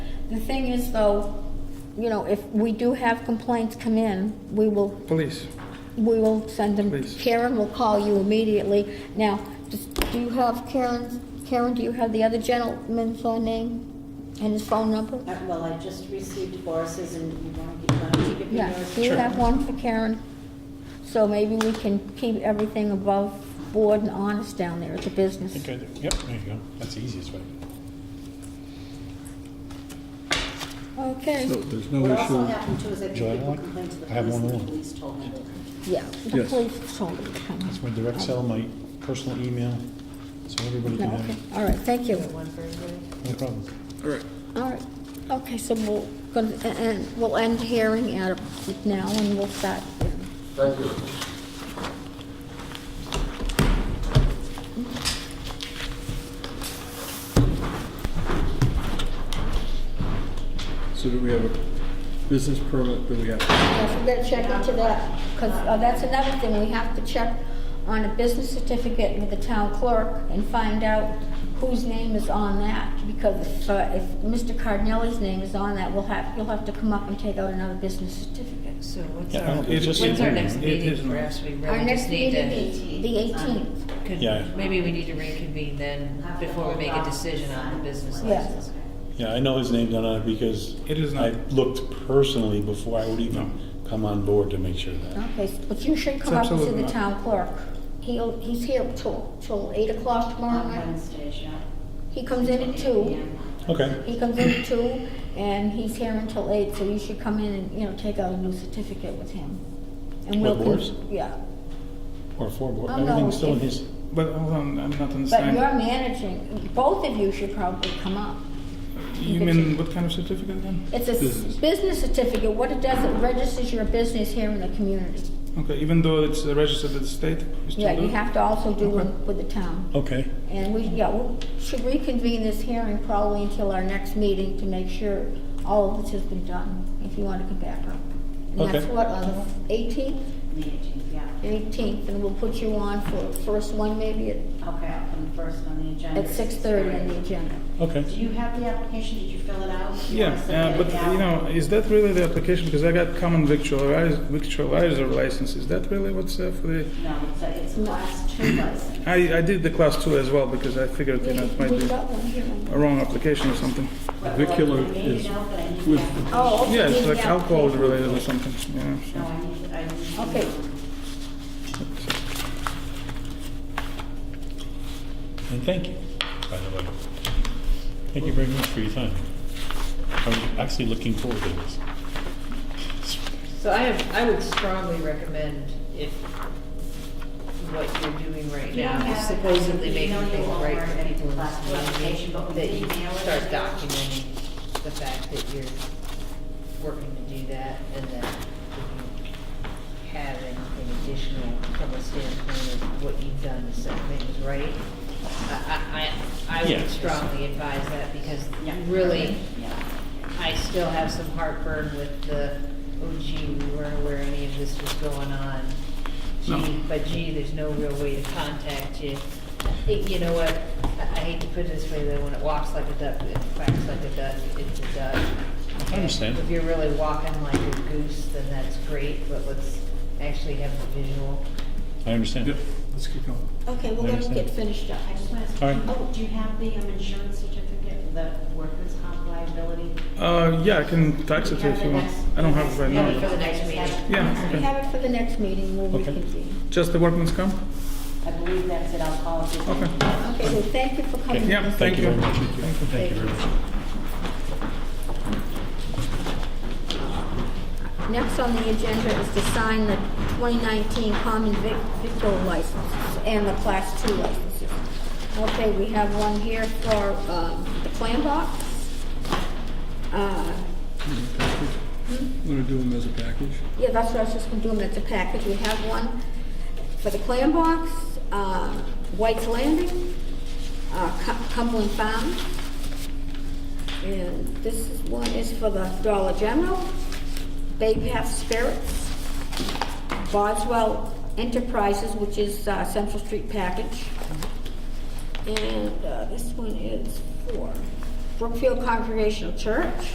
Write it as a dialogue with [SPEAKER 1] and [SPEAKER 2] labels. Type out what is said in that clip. [SPEAKER 1] The thing is though, you know, if we do have complaints come in, we will
[SPEAKER 2] Police.
[SPEAKER 1] We will send them,
[SPEAKER 2] Please.
[SPEAKER 1] Karen will call you immediately. Now, just- do you have Karen's, Karen, do you have the other gentleman's uh, name and his phone number?
[SPEAKER 3] Uh, Well, I just received Boris's and you want to, you want to give me
[SPEAKER 1] Yeah,
[SPEAKER 3] yours?
[SPEAKER 1] do you have one for Karen? So maybe we can keep everything above board and honest down there at the business.
[SPEAKER 4] Think I do. Yep, there you go. That's the easiest way.
[SPEAKER 1] Okay,
[SPEAKER 5] So there's no
[SPEAKER 3] What also
[SPEAKER 5] issue,
[SPEAKER 3] happened too is I think
[SPEAKER 4] Joy, I
[SPEAKER 3] people
[SPEAKER 4] like-
[SPEAKER 3] complained to the
[SPEAKER 4] I have
[SPEAKER 3] police and
[SPEAKER 4] one
[SPEAKER 3] the
[SPEAKER 4] more.
[SPEAKER 3] police told them. to-
[SPEAKER 1] yeah, the
[SPEAKER 5] Yes.
[SPEAKER 1] police told me to come.
[SPEAKER 4] That's my direct sell, my personal email, so everybody
[SPEAKER 1] No,
[SPEAKER 4] can have
[SPEAKER 1] okay,
[SPEAKER 4] it.
[SPEAKER 1] all right, thank you.
[SPEAKER 4] No problem.
[SPEAKER 5] all right,
[SPEAKER 1] All right, okay, so we'll, gonna- and- e-, and we'll end hearing at a- now and we'll start.
[SPEAKER 6] Thank you.
[SPEAKER 5] so do we have a business permit that we have? to-
[SPEAKER 1] Yes, we gotta check into that, because that's another thing, we have to check on a business certificate with the town clerk and find out whose name is on that, because if, uh, if Mr. Cardinelli's name is on that, we'll have, you'll have to come up and take out another business certificate.
[SPEAKER 7] So what's
[SPEAKER 4] Yeah, I
[SPEAKER 7] our,
[SPEAKER 4] don't- it's just-
[SPEAKER 7] when's our next
[SPEAKER 2] it
[SPEAKER 7] meeting
[SPEAKER 2] isn't.
[SPEAKER 7] for us? We
[SPEAKER 1] Our
[SPEAKER 7] really
[SPEAKER 1] next
[SPEAKER 7] just need
[SPEAKER 1] meeting
[SPEAKER 7] to.
[SPEAKER 1] is the eighteenth,
[SPEAKER 7] could-
[SPEAKER 4] Yeah.
[SPEAKER 7] Maybe we need to reconvene then before we make a decision on the business
[SPEAKER 1] Yeah.
[SPEAKER 7] license.
[SPEAKER 4] Yeah, I know his name down on it because
[SPEAKER 2] It is
[SPEAKER 4] I
[SPEAKER 2] not-
[SPEAKER 4] looked personally before I would
[SPEAKER 2] No.
[SPEAKER 4] even come on board to make sure that.
[SPEAKER 1] okay, s- but you should come
[SPEAKER 2] It's
[SPEAKER 1] up to
[SPEAKER 2] absolutely
[SPEAKER 1] the
[SPEAKER 2] not.
[SPEAKER 1] town clerk. He'll, he's here till, till eight o'clock tomorrow
[SPEAKER 3] On
[SPEAKER 1] night,
[SPEAKER 3] Wednesdays, yeah.
[SPEAKER 1] he comes in at two.
[SPEAKER 4] Okay,
[SPEAKER 1] He comes in at two, and he's here until eight, so you should come in and, you know, take out a new certificate with him. And we'll
[SPEAKER 4] With Boris?
[SPEAKER 1] Yeah,
[SPEAKER 4] or four board,
[SPEAKER 1] Oh, no,
[SPEAKER 4] everything's still in
[SPEAKER 1] if-
[SPEAKER 4] his,
[SPEAKER 2] But hold on, I'm not
[SPEAKER 1] but you're
[SPEAKER 2] understanding.
[SPEAKER 1] managing, both of you should probably come up.
[SPEAKER 2] You mean what kind of certificate then?
[SPEAKER 1] It's a s-
[SPEAKER 5] Business.
[SPEAKER 1] business certificate, what it does, it registers your business here in the community.
[SPEAKER 2] Okay, even though it's uh, registered at the state? we still
[SPEAKER 1] Yeah,
[SPEAKER 2] do
[SPEAKER 1] you
[SPEAKER 2] it?
[SPEAKER 1] have to also do
[SPEAKER 2] Okay.
[SPEAKER 1] with the town.
[SPEAKER 4] okay.
[SPEAKER 1] And we, yeah, we should reconvene this hearing probably until our next meeting to make sure all of this has been done, if you want to come back up. And that's
[SPEAKER 4] Okay.
[SPEAKER 1] what, on the eighteenth?
[SPEAKER 3] The eighteenth, yeah.
[SPEAKER 1] 18th, and we'll put you on for the first one maybe at-
[SPEAKER 3] Okay, I'll come first on the agenda.
[SPEAKER 1] at 6:30 on the agenda.
[SPEAKER 4] Okay.
[SPEAKER 3] Do you have the application? Did you fill it out? Do you
[SPEAKER 2] Yeah,
[SPEAKER 3] wanna
[SPEAKER 2] uh,
[SPEAKER 3] submit
[SPEAKER 2] but
[SPEAKER 3] it now?
[SPEAKER 2] you know, is that really the application? Because I got common victualizer, victualizer license. Is that really what's uh, for the?
[SPEAKER 3] No, it's a, it's a class two license.
[SPEAKER 2] I, I did the class two as well because I figured you know it might
[SPEAKER 1] We
[SPEAKER 2] be
[SPEAKER 1] got one here.
[SPEAKER 2] a wrong application or something.
[SPEAKER 3] But-
[SPEAKER 5] Vicular
[SPEAKER 3] I made it
[SPEAKER 5] is
[SPEAKER 3] out, but I need
[SPEAKER 5] with-
[SPEAKER 3] the application.
[SPEAKER 1] Oh, okay.
[SPEAKER 2] Yeah,
[SPEAKER 1] you
[SPEAKER 2] it's
[SPEAKER 1] need
[SPEAKER 2] like
[SPEAKER 1] the
[SPEAKER 2] alcohol
[SPEAKER 1] application.
[SPEAKER 2] related or something. Yeah. so-
[SPEAKER 3] No, I need, I need.
[SPEAKER 1] Okay.
[SPEAKER 4] And thank you, by the way. Thank you very much for your time. I was actually looking forward to this.
[SPEAKER 7] So I have, I would strongly recommend if what you're doing right
[SPEAKER 3] You don't
[SPEAKER 7] now is
[SPEAKER 3] have-
[SPEAKER 7] supposedly
[SPEAKER 3] you
[SPEAKER 7] making
[SPEAKER 3] know you
[SPEAKER 7] things
[SPEAKER 3] won't
[SPEAKER 7] right
[SPEAKER 3] learn
[SPEAKER 7] for
[SPEAKER 3] any
[SPEAKER 7] people in
[SPEAKER 3] class
[SPEAKER 7] this community,
[SPEAKER 3] qualification, but
[SPEAKER 7] that you
[SPEAKER 3] we email it
[SPEAKER 7] start
[SPEAKER 3] to you.
[SPEAKER 7] documenting the fact that you're working to do that and that if you have anything additional from a standpoint of what you've done to set things right. I, I, I I
[SPEAKER 4] Yeah.
[SPEAKER 7] would strongly advise that because
[SPEAKER 3] Yeah.
[SPEAKER 7] really,
[SPEAKER 3] Yeah.
[SPEAKER 7] I still have some heartburn with the, oh gee, we weren't aware any of this was going on. Gee, but gee, there's no real way to contact you. It- You know what, I I hate to put it this way, though, when it walks like a duck, it quacks like a duck, it's a duck.
[SPEAKER 4] I understand.
[SPEAKER 7] If you're really walking like a goose, then that's great, but let's actually have the visual.
[SPEAKER 4] I understand.
[SPEAKER 5] Yep, let's keep going.
[SPEAKER 1] Okay, we're
[SPEAKER 4] I
[SPEAKER 1] going to
[SPEAKER 4] understand.
[SPEAKER 1] get finished up.
[SPEAKER 3] I just want to,
[SPEAKER 4] All right.
[SPEAKER 3] oh, do you have the um, insurance certificate, for the workers' comp liability?
[SPEAKER 2] Uh, yeah, I can tax it
[SPEAKER 3] Do you have
[SPEAKER 2] if you
[SPEAKER 3] the
[SPEAKER 2] want.
[SPEAKER 3] next-
[SPEAKER 2] I don't have it right
[SPEAKER 7] Yeah,
[SPEAKER 2] now.
[SPEAKER 7] we
[SPEAKER 2] though.
[SPEAKER 7] for the next meeting.
[SPEAKER 2] Yeah,
[SPEAKER 1] We
[SPEAKER 2] okay.
[SPEAKER 1] have it for the next meeting, we'll
[SPEAKER 4] Okay.
[SPEAKER 1] reconvene.
[SPEAKER 2] Just the workman's comp?
[SPEAKER 3] I believe that's it, I'll call it.
[SPEAKER 2] Okay.
[SPEAKER 1] Okay, well, thank you for coming.
[SPEAKER 2] Yeah, thank you.
[SPEAKER 4] very much.
[SPEAKER 2] Thank you.
[SPEAKER 4] Thank you very much.
[SPEAKER 1] Next on the agenda is to sign the 2019 common vic victual licenses and the Class 2 licenses. Okay, we have one here for um, the clam box. Uh,
[SPEAKER 5] I'm gonna do them as a package.
[SPEAKER 1] Yeah, that's what I was just gonna do, them as a package, we have one for the clam box, uh, White's Landing, uh, Cum- Cumberland Farm. And this is, one is for the Dollar General, Bay Path Spirits, Boswell Enterprises, which is, uh, Central Street Package. And, uh, this one is for Brookfield Congregational Church,